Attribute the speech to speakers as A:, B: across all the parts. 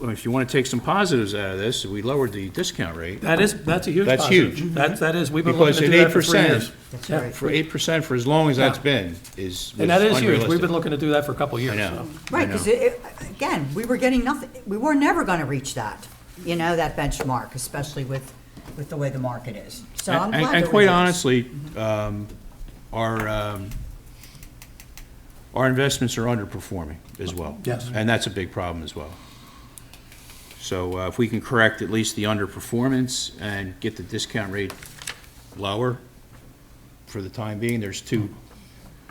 A: well, if you want to take some positives out of this, we lowered the discount rate
B: That is, that's a huge
A: That's
B: positive.
A: huge.
B: That's, that is, we've been looking
A: because
B: to
A: at
B: do
A: eight
B: that for three
A: percent,
B: years.
C: That's
B: Yeah.
C: right.
A: for eight percent for as long as that's been, is was
B: And that is huge. We've
A: unrealistic.
B: been looking to do that for a couple of
A: I
B: years,
A: know.
B: so.
C: Right, because again, we were getting nothing, we were never going to reach that, you know, that benchmark, especially with, with the way the market is. So I'm
A: And,
C: glad
A: and-
C: that
A: and
C: we
A: quite
C: did this.
A: honestly, um, our, um, our investments are underperforming as well.
B: Yes.
A: And that's a big problem as well. So uh, if we can correct at least the underperformance and get the discount rate lower for the time being, there's two,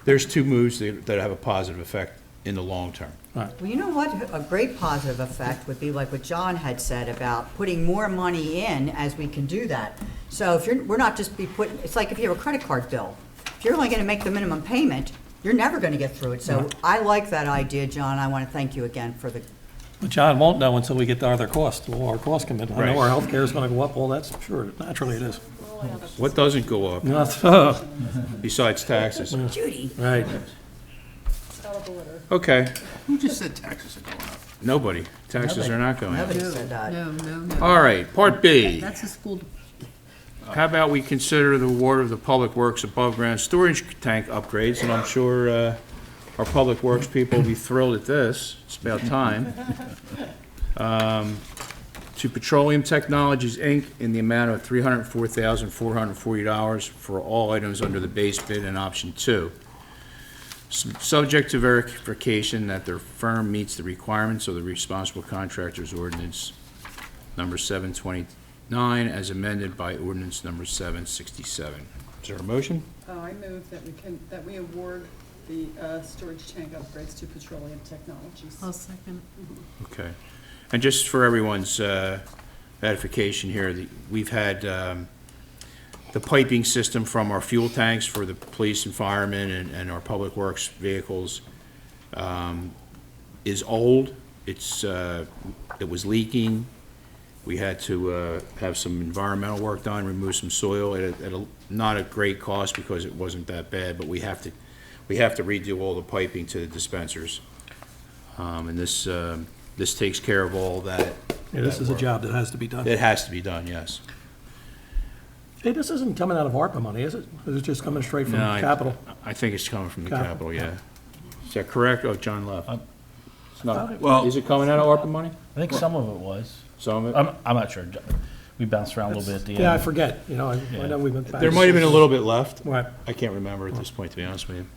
A: there's two moves that, that have a positive effect in the long term.
C: Well, you know what, a great positive effect would be like what John had said about putting more money in as we can do that. So if you're, we're not just be putting, it's like if you have a credit card bill, if you're only gonna make the minimum payment, you're never gonna get through it. So I like that idea, John, I wanna thank you again for the,
B: But John won't know until we get to other costs, well, our costs come in. I
A: Right.
B: know our healthcare is gonna go up, well, that's sure, naturally it is.
A: What doesn't go up
B: No, so-
A: besides taxes?
C: Judy,
B: Right.
A: Okay,
D: Who just said taxes are going up?
A: nobody. Taxes are not going up.
C: nobody said that.
D: No, no, no.
A: All right, part B.
D: That's a school,
A: How about we consider the award of the Public Works above-ground storage tank upgrades, and I'm sure uh, our Public Works people will be thrilled at this, it's about time. Um, To Petroleum Technologies, Inc., in the amount of $304,440 for all items under the base bid and option two. S- Subject to verification that their firm meets the requirements of the Responsible Contractors Ordinance number 729 as amended by ordinance number 767. Is there a motion?
E: Oh, I move that we can, that we award the uh, storage tank upgrades to Petroleum Technologies.
D: I'll second.
A: Okay. And just for everyone's uh, edification here, the- we've had um, the piping system from our fuel tanks for the police and firemen and- and our public works vehicles um, is old. It's, uh, it was leaking. We had to uh, have some environmental work done, remove some soil at a, at a, not a great cost because it wasn't that bad, but we have to, we have to redo all the piping to the dispensers. Um, And this, um, this takes care of all that.
B: Yeah, this is
A: that
B: a
A: work.
B: job that has to be done.
A: It has to be done, yes.
B: Hey, this isn't coming out of ARPA money, is it? It's just coming straight from
A: No, I-
B: capital.
A: I think it's coming from the
B: Capital.
A: capital, yeah. Is that correct? Oh, John left. It's not-
F: Well-
A: Is it coming out of ARPA money?
G: I think some of it was.
A: Some of it?
G: I'm, I'm not sure. We bounced around a little bit at the end.
B: Yeah, I forget, you know, I I know we went back.
A: There might have been a little bit left.
B: Right.
A: I can't remember at this point, to be honest with you.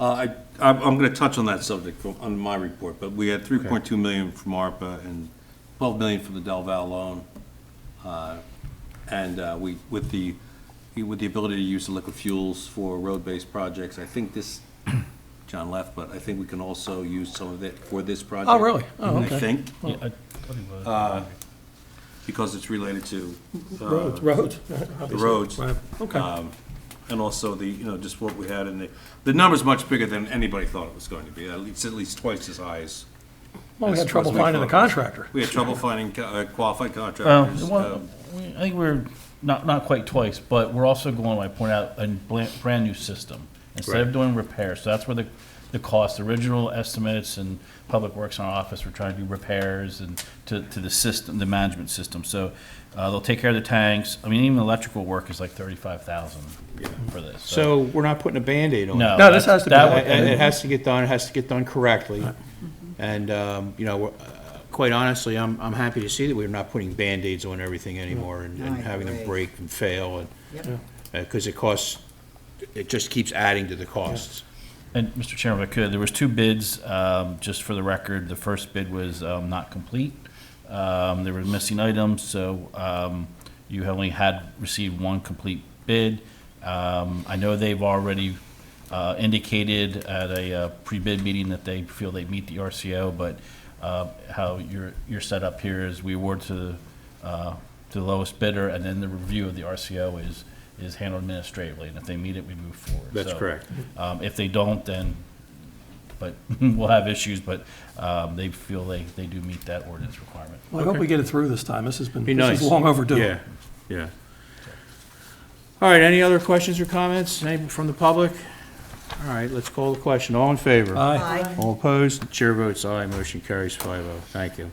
F: Uh, I, I'm, I'm gonna touch on that subject from- on my report, but we had three point two million from ARPA and twelve million from the Del Val loan. Uh, And, uh, we, with the, with the ability to use the liquid fuels for road-based projects, I think this, John left, but I think we can also use some of it for this project.
B: Oh, really? Oh,
F: I
B: okay.
F: think,
G: Yeah, I thought it was.
A: Uh,
F: because it's related to. uh,
B: Roads, roads.
F: the roads.
B: Right, okay.
F: um, And also the, you know, just what we had in the, the number's much bigger than anybody thought it was going to be. At least, at least twice as high as.
B: Well, we
F: as
B: had trouble
F: what we
B: finding the
F: thought it was.
B: contractor.
F: We had trouble finding co- uh, qualified
G: Um,
F: contractors.
G: well,
A: uh,
F: um,
G: we- I think we're, not, not quite twice, but we're also going, I point out, a bl- brand-new system. Instead of
A: Right.
G: doing repairs, so that's where the, the cost, original estimates and Public Works in our office, we're trying to do repairs and to, to the system, the management system. So, uh, they'll take care of the tanks. I mean, even electrical work is like thirty-five thousand for this.
A: So we're not putting a Band-Aid on it.
G: No.
B: No, this has to be-
G: that
A: Uh,
G: would-
A: And it has to get done, it has to get done correctly. And, um, you know, we're, uh, quite honestly, I'm, I'm happy to see that we're not putting Band-Aids on everything anymore and and
C: I
A: having them
C: agree.
A: break and fail
C: Yep.
A: and, because Uh, it costs, it just keeps adding to the costs.
G: And Mr. Chairman, if I could, there was two bids, um, just for the record. The first bid was um, not complete. Um, There were missing items, so um, you only had received one complete bid. Um, I know they've already uh, indicated at a uh, pre-bid meeting that they feel they meet the RCO, but uh, how you're, you're set up here is we award to, uh, to the lowest bidder, and then the review of the RCO is, is handled administratively, and if they meet it, we move forward.
A: That's
G: So,
A: correct.
G: um, If they don't, then, but we'll have issues, but um, they feel they, they do meet that ordinance requirement.
B: Well, I hope we get it through this time. This has been,
A: Be
B: this
A: nice.
B: is long overdue.
A: Yeah, yeah. All right, any other questions or comments, any from the public? All right, let's call the question, all in favor?
B: Aye.
C: Aye.
A: All opposed? Chair votes aye, motion carries five oh. Thank you.